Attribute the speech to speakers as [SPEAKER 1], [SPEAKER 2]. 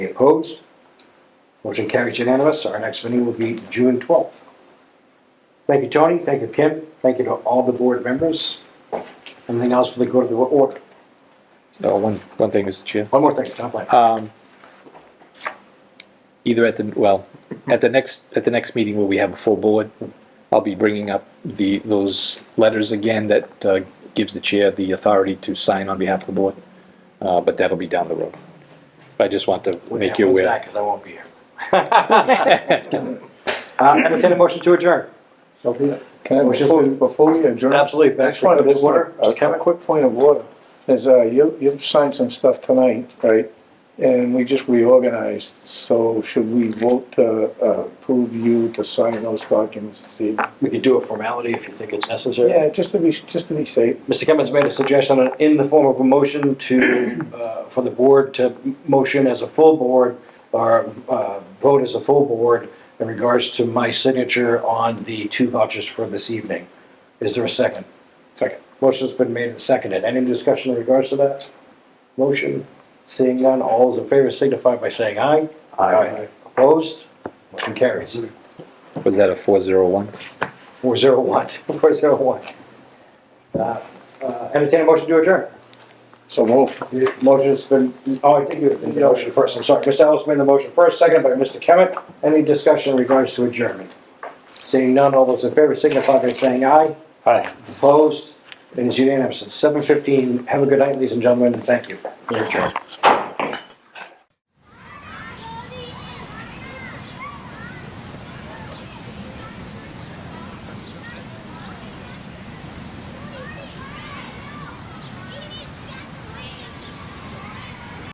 [SPEAKER 1] Any opposed? Motion carries unanimous. Our next meeting will be June 12th. Thank you, Tony. Thank you, Kim. Thank you to all the board members. Anything else for the good of the order?
[SPEAKER 2] Oh, one, one thing, Mr. Chair.
[SPEAKER 1] One more thing, Tom, like,
[SPEAKER 2] Um, either at the, well, at the next, at the next meeting where we have a full board, I'll be bringing up the, those letters again that, uh, gives the chair the authority to sign on behalf of the board. Uh, but that'll be down the road. I just want to make you
[SPEAKER 1] when's
[SPEAKER 2] aware.
[SPEAKER 1] that? 'Cause I won't be here. Uh, entertain a motion to adjourn.
[SPEAKER 3] So be it. Can I,
[SPEAKER 1] Which is-
[SPEAKER 3] before, before we adjourn?
[SPEAKER 1] Absolutely.
[SPEAKER 3] I
[SPEAKER 1] Back
[SPEAKER 3] just wanted
[SPEAKER 1] to
[SPEAKER 3] to,
[SPEAKER 1] the order.
[SPEAKER 3] a
[SPEAKER 1] Mr. Kevin?
[SPEAKER 3] quick point of order, is, uh, you, you've signed some stuff tonight, right? And we just reorganized, so should we vote to uh, approve you to sign those documents this evening?
[SPEAKER 1] We could do a formality if you think it's necessary.
[SPEAKER 3] Yeah, just to be, just to be safe.
[SPEAKER 1] Mr. Kemmons made a suggestion in the form of a motion to, uh, for the board to motion as a full board or uh, vote as a full board in regards to my signature on the two vouchers for this evening. Is there a second?
[SPEAKER 3] Second.
[SPEAKER 1] Motion's been made and seconded. Any discussion in regards to that? Motion, seeing none, all those in favor signify by saying aye. Opposed? Motion carries.
[SPEAKER 2] Was that a four zero one?
[SPEAKER 1] 401, 401. Uh, uh, Entertain a motion to adjourn.
[SPEAKER 3] So move.
[SPEAKER 1] Motion's been, oh, I think you did the motion first, I'm sorry. Mr. Ellis made the motion first, second by Mr. Kemet. Any discussion in regards to adjournment? Seeing none, all those in favor signify by saying aye.
[SPEAKER 2] Hi.
[SPEAKER 1] Opposed? It is unanimous. It's 7:15. Have a good night, ladies and gentlemen, and thank you. We're adjourned.